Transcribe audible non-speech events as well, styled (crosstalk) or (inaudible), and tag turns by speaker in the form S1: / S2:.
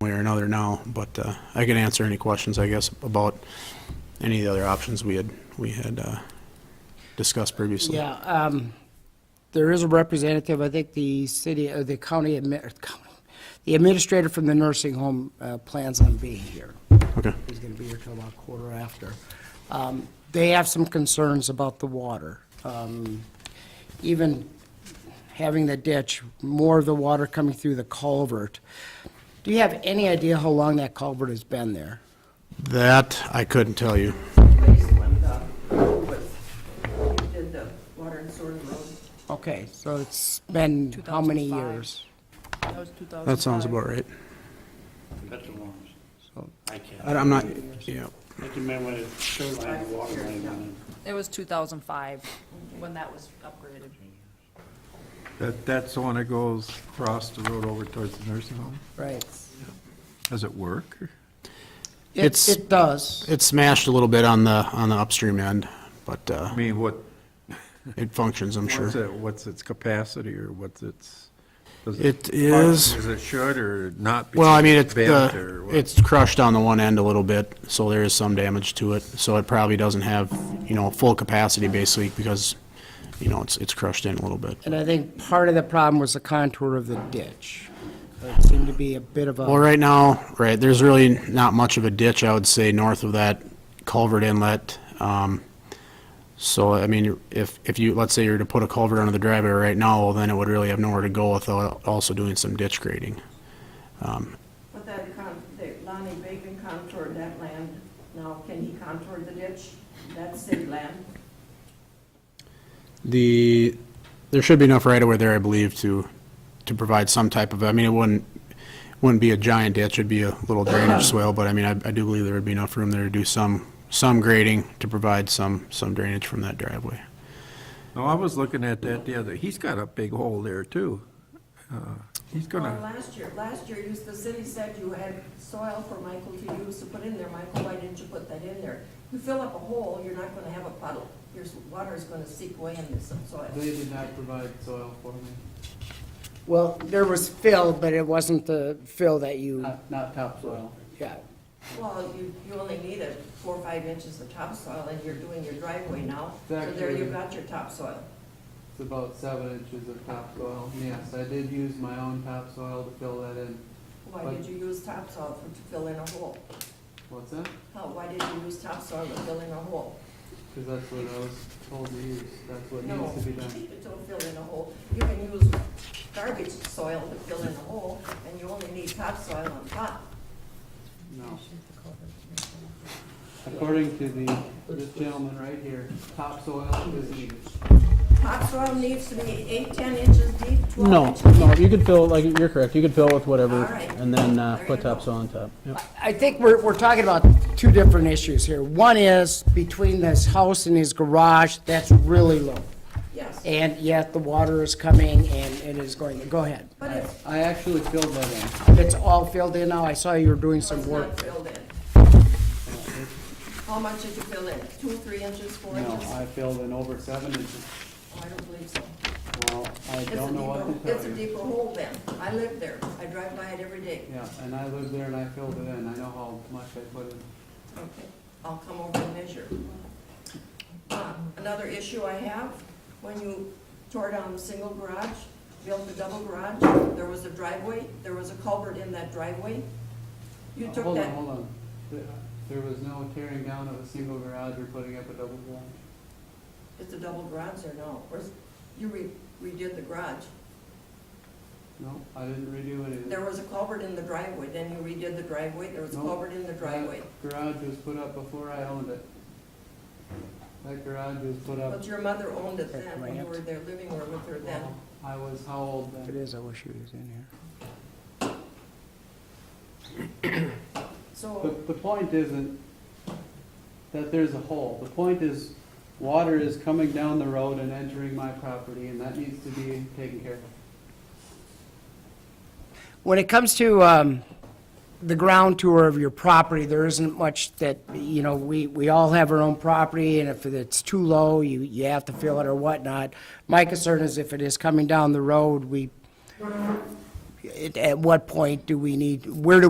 S1: way or another now, but uh, I can answer any questions, I guess, about any of the other options we had, we had uh, discussed previously.
S2: Yeah, um, there is a representative, I think the city, uh, the county admi- or county, the administrator from the nursing home, uh, plans on being here.
S1: Okay,
S2: He's gonna be here till about quarter after. Um, they have some concerns about the water. Um, even having the ditch, more of the water coming through the culvert. Do you have any idea how long that culvert has been there?
S1: that I couldn't tell you.
S3: when the, when we did the water and sewer road,
S2: Okay, so it's been how many
S3: 2005.
S2: years?
S3: that was 2005.
S1: That sounds about right.
S4: That's a long,
S2: So-
S4: I can't.
S1: I- I'm not, yeah,
S4: I can remember when it showed line and water line went in.
S5: It was 2005 when that was upgraded.
S6: That, that's the one that goes across the road over towards the nursing home?
S2: Right.
S6: Does it work?
S2: It,
S1: It's-
S2: it does.
S1: it smashed a little bit on the, on the upstream end, but uh,
S6: I mean, what,
S1: it functions, I'm
S6: what's
S1: sure.
S6: it, what's its capacity or what's its? does
S1: It is-
S6: Is it should or not?
S1: Well, I mean,
S6: because
S1: it's,
S6: bent
S1: the-
S6: or what?
S1: it's crushed on the one end a little bit, so there is some damage to it. So it probably doesn't have, you know, full capacity basically because, you know, it's, it's crushed in a little bit.
S2: And I think part of the problem was the contour of the ditch. It seemed to be a bit of
S1: Well,
S2: a,
S1: right now, right, there's really not much of a ditch, I would say, north of that culvert inlet. Um, So, I mean, if, if you, let's say you were to put a culvert under the driveway right now, well, then it would really have nowhere to go without also doing some ditch grading.
S3: But that con, that Lonnie Bacon contoured that land, now can he contour the ditch? That's city land.
S1: The, there should be enough right away there, I believe, to, to provide some type of, I mean, it wouldn't, wouldn't be a giant ditch, it'd be a
S7: (clears throat)
S1: little drainage swale, but I mean, I, I do believe there would be enough room there to do some, some grading to provide some, some drainage from that driveway.
S6: No, I was looking at that the other, he's got a big hole there too. Uh, He's
S3: Well,
S6: gonna,
S3: last year, last year, you, the city said you had soil for Michael to use to put in there, Michael, why didn't you put that in there? You fill up a hole, you're not gonna have a puddle, your s- water is gonna seep away into some soil.
S8: They did not provide soil for me,
S2: well, there was fill, but it wasn't the fill that you,
S8: not, not topsoil.
S2: yeah.
S3: Well, you, you only need a four or five inches of topsoil, and you're doing your driveway now, so there you've got your topsoil.
S8: It's about seven inches of topsoil. Yes, I did use my own topsoil to fill that in.
S3: Why did you use topsoil for- to fill in a hole?
S8: What's that?
S3: How, why did you use topsoil to fill in a hole?
S8: Because that's what I was told to use. That's what
S3: No,
S8: needs to be done.
S3: Don't fill in a hole. You can use garbage soil to fill in a hole, and you only need topsoil on top.
S8: No. According to the, this gentleman right here, topsoil is needed.
S3: Topsoil needs to be eight, ten inches deep, twelve
S7: No,
S3: inches deep.
S7: no, you could fill, like, you're correct, you could fill with whatever,
S3: All right.
S7: and then uh,
S3: There
S7: put
S3: you go.
S7: topsoil on top. Yep.
S2: I think we're, we're talking about two different issues here. One is between this house and his garage, that's really low.
S3: Yes,
S2: And yet the water is coming and it is going, go ahead.
S3: but it's,
S8: I actually filled that in.
S2: It's all filled in now. I saw you were doing some
S3: it's
S2: work.
S3: not filled in. How much did you fill in? Two, three inches, four
S8: No,
S3: inches?
S8: I filled in over seven inches.
S3: Oh, I don't believe so.
S8: Well, I
S3: It's a
S8: don't know what
S3: deeper,
S8: to
S3: it's a
S8: tell you.
S3: deeper hole then. I live there. I drive by it every day.
S8: Yeah, and I lived there and I filled it in. I know how much I put in.
S3: Okay, I'll come over and measure. Uh, Another issue I have, when you tore down the single garage, built the double garage, there was a driveway, there was a culvert in that driveway. You
S8: Uh,
S3: took
S8: Hold on,
S3: that,
S8: hold on. Th- There was no tearing down of a single garage or putting up a double garage.
S3: it's a double garage there now, or is- you re- redid the garage.
S8: No, I didn't redo anything.
S3: There was a culvert in the driveway, then you redid the driveway, there was a
S8: No.
S3: culvert in the driveway.
S8: That Garage was put up before I owned it. That garage was put up,
S3: But your mother owned it then, when you were there living there with her then.
S8: well, I was how old
S2: It
S8: then?
S2: is, I wish he was in here.
S3: So,
S8: The, the point isn't that there's a hole. The point is, water is coming down the road and entering my property, and that needs to be taken care of.
S2: When it comes to um, the ground tour of your property, there isn't much that, you know, we, we all have our own property, and if it's too low, you, you have to fill it or whatnot. My concern is if it is coming down the road, we, at- at what point do we need, where do